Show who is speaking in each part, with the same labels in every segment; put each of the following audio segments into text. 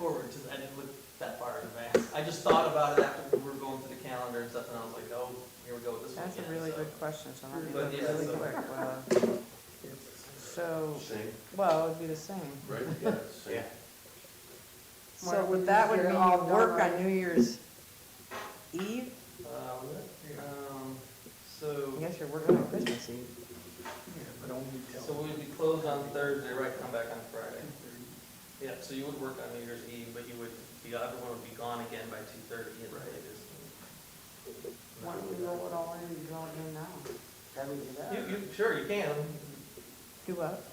Speaker 1: I didn't look that far in advance. I just thought about it after we were going through the calendar and stuff, and I was like, oh, here we go with this
Speaker 2: That's a
Speaker 1: weekend,
Speaker 2: really
Speaker 1: so.
Speaker 2: good question, so let me
Speaker 1: But
Speaker 2: look
Speaker 1: yeah,
Speaker 2: really
Speaker 1: so-
Speaker 2: quick. Well, So,
Speaker 3: Same,
Speaker 2: well, it'd be the same.
Speaker 3: right, yeah, same.
Speaker 2: So
Speaker 4: Mark,
Speaker 2: would that would
Speaker 4: you're
Speaker 2: mean
Speaker 4: all
Speaker 2: all work
Speaker 4: done,
Speaker 2: on New Year's Eve?
Speaker 1: Uh, um,
Speaker 2: I
Speaker 1: so,
Speaker 2: guess you're working on Christmas Eve.
Speaker 1: so we would be closed on Thursday, right, come back on Friday. Yeah, so you would work on New Year's Eve, but you would, be everyone would be gone again by two thirty, and right, it is.
Speaker 4: Why don't we roll it all in and draw it in now? Can we do that?
Speaker 1: You, you, sure, you can.
Speaker 2: Do what?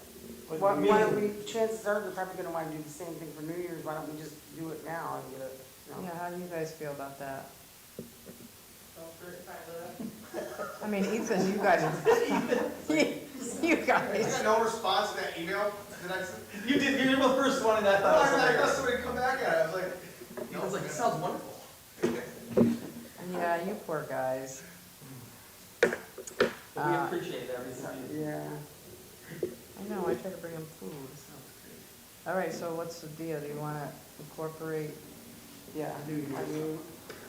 Speaker 4: Why why don't we, chances are, they're probably gonna wanna do the same thing for New Year's, why don't we just do it now and get it? you know?
Speaker 2: Yeah, how do you guys feel about that? I mean, Ethan, you guys, you
Speaker 5: I got
Speaker 2: guys,
Speaker 5: no response to that email that I sent.
Speaker 1: You did, you were the first one, and I
Speaker 5: I thought I thought
Speaker 1: thought.
Speaker 5: somebody would come back at it, I was like.
Speaker 1: I was like, it sounds wonderful.
Speaker 2: yeah, you poor guys.
Speaker 1: But we
Speaker 2: Uh,
Speaker 1: appreciate everything.
Speaker 4: Yeah.
Speaker 2: I know, I try to bring them food. so. All right, so what's the deal? Do you want to incorporate?
Speaker 4: Yeah, I mean,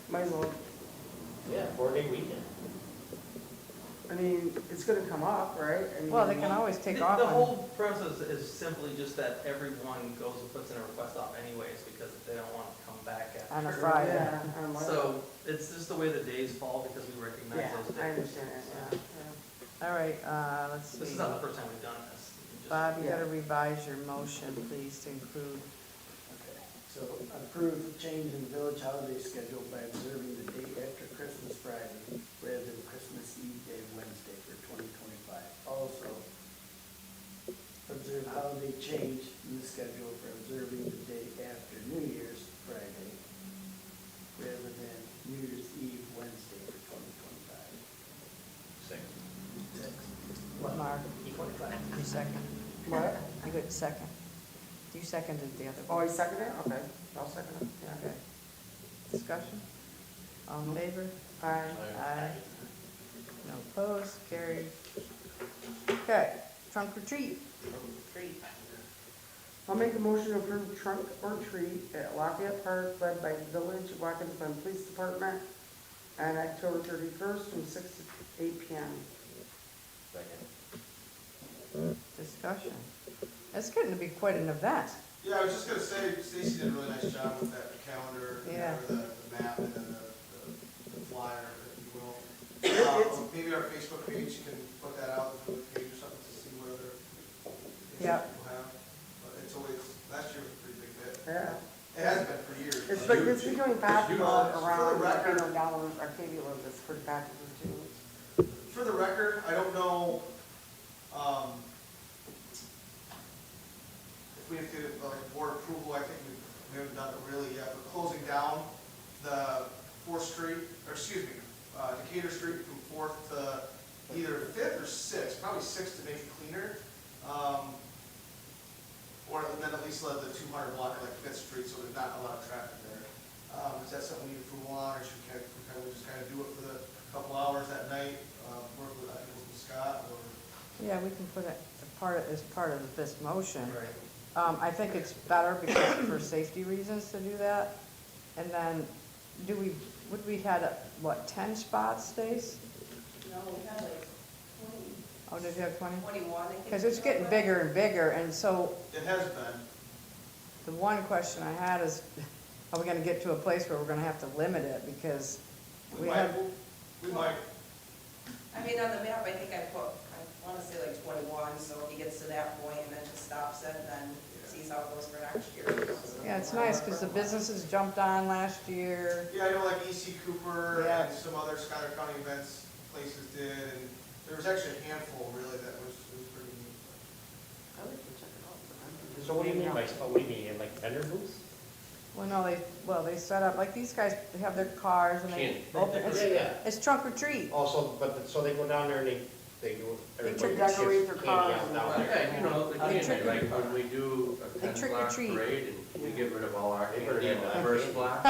Speaker 4: might as well,
Speaker 6: Yeah, four-day weekend.
Speaker 4: I mean, it's gonna come up, right? I
Speaker 2: Well, they
Speaker 4: mean,
Speaker 2: can always take
Speaker 1: The-
Speaker 2: off
Speaker 1: The
Speaker 2: on,
Speaker 1: whole process is simply just that everyone goes and puts in a request off anyways, because they don't want to come back after.
Speaker 2: on a Friday.
Speaker 4: Yeah, I don't know.
Speaker 1: So it's just the way the days fall, because we recognize
Speaker 4: Yeah,
Speaker 1: those
Speaker 4: I
Speaker 1: days.
Speaker 4: understand that, yeah.
Speaker 2: All right, uh, let's see.
Speaker 1: This is not the first time we've done this. You just-
Speaker 2: Bob, you gotta revise your motion, please, to include,
Speaker 7: Okay, so approve change in village holiday schedule by observing the day after Christmas Friday rather than Christmas Eve day Wednesday for 2025. Also, observe holiday change in the schedule for observing the day after New Year's Friday rather than New Year's Eve Wednesday for 2025.
Speaker 3: Same.
Speaker 7: Six.
Speaker 2: Mark,
Speaker 7: Twenty-five.
Speaker 2: you second.
Speaker 4: What?
Speaker 2: You got second. You seconded the other
Speaker 4: Oh,
Speaker 2: one.
Speaker 4: he seconded it? Okay, I'll second it, yeah.
Speaker 2: Okay. Discussion? All in favor?
Speaker 4: Aye.
Speaker 2: Aye. No opposed, carried. Okay, trunk retreat.
Speaker 4: I'll make a motion to approve trunk or treat at Lafayette Park led by Village Watkinson Police Department on October thirty-first from six to eight P M.
Speaker 3: Second.
Speaker 2: Discussion. It's getting to be quite an event.
Speaker 5: Yeah, I was just gonna say, Stacy did a really nice job with that calendar, you
Speaker 2: Yeah.
Speaker 5: know, the, the map and then the, the the flyer, if you will. Uh, Maybe our Facebook page, you can put that out, the page or something to see what other things
Speaker 2: Yeah.
Speaker 5: people have. But it's always, last year was a pretty big hit.
Speaker 4: Yeah.
Speaker 5: It has been for years.
Speaker 4: Uh, It's like, it's becoming popular
Speaker 5: Uh, for
Speaker 4: around,
Speaker 5: the
Speaker 4: like, you
Speaker 5: record-
Speaker 4: know, down Arcadia lives, it's pretty popular too.
Speaker 5: For the record, I don't know, um, if we have to, get, like, board approval, I think we, we haven't done it really yet, but closing down the Fourth Street, or excuse me, uh, Decatur Street from Fourth to either Fifth or Sixth, probably Sixth to make it cleaner. Um, or then at least let the two hundred block of like Fifth Street, so there's not a lot of traffic there. Um, is that something we need approval on, or should we kind of, we kind of just kind of do it for the couple hours that night, uh, work with, I think, with Scott, or?
Speaker 2: Yeah, we can put it a part, as part of this motion.
Speaker 5: Right.
Speaker 2: Um, I think it's better because for safety reasons to do that. And then, do we, would we had, uh, what, ten spots, Stace?
Speaker 8: No, we had like 20,
Speaker 2: Oh, did you have twenty?
Speaker 8: 21. I think.
Speaker 2: Because it's getting bigger and bigger, and so
Speaker 5: It has been.
Speaker 2: the one question I had is, are we gonna get to a place where we're gonna have to limit it? Because we
Speaker 5: We
Speaker 2: had,
Speaker 5: might, we might,
Speaker 8: I mean, on the map, I think I put, I want to say like 21, so if he gets to that point and then just stops it, then sees how it goes for next year.
Speaker 2: yeah, it's nice, because the businesses jumped on last year.
Speaker 5: yeah, I know like EC Cooper
Speaker 2: Yeah.
Speaker 5: and some other Scott County events places did, and there was actually a handful really that was, was pretty neat.
Speaker 4: I like to check it out, but I don't
Speaker 6: So what do you mean by, oh, what do you mean, like vendor booths?
Speaker 2: Well, no, they, well, they set up, like, these guys, they have their cars and they
Speaker 6: Can't-
Speaker 2: open,
Speaker 6: Yeah,
Speaker 2: it's,
Speaker 6: yeah.
Speaker 2: it's trunk or treat.
Speaker 6: Also, but, so they go down there and they, they do, everybody
Speaker 4: trick
Speaker 6: gets
Speaker 4: decorate their
Speaker 6: candy
Speaker 4: cars
Speaker 6: out
Speaker 4: and
Speaker 6: down there.
Speaker 3: Yeah, you know,
Speaker 2: They
Speaker 3: again,
Speaker 2: trick or-
Speaker 3: like when we do a
Speaker 2: They
Speaker 3: ten
Speaker 2: trick or
Speaker 3: block
Speaker 2: treat.
Speaker 3: parade and we get rid of all our
Speaker 6: They
Speaker 3: candy
Speaker 6: better
Speaker 3: in
Speaker 6: have
Speaker 3: the
Speaker 6: that
Speaker 3: first
Speaker 6: candy.
Speaker 3: block.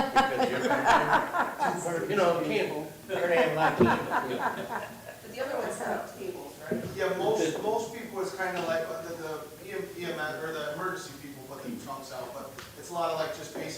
Speaker 3: because you're gonna do- You know, can't, they're gonna have a lot of candy.
Speaker 8: But the other ones set up tables, right?
Speaker 5: Yeah, most, most people it's kind E of like uh, the, the EM, EMS, or the emergency people put the trunks out, but it's a lot of like just basic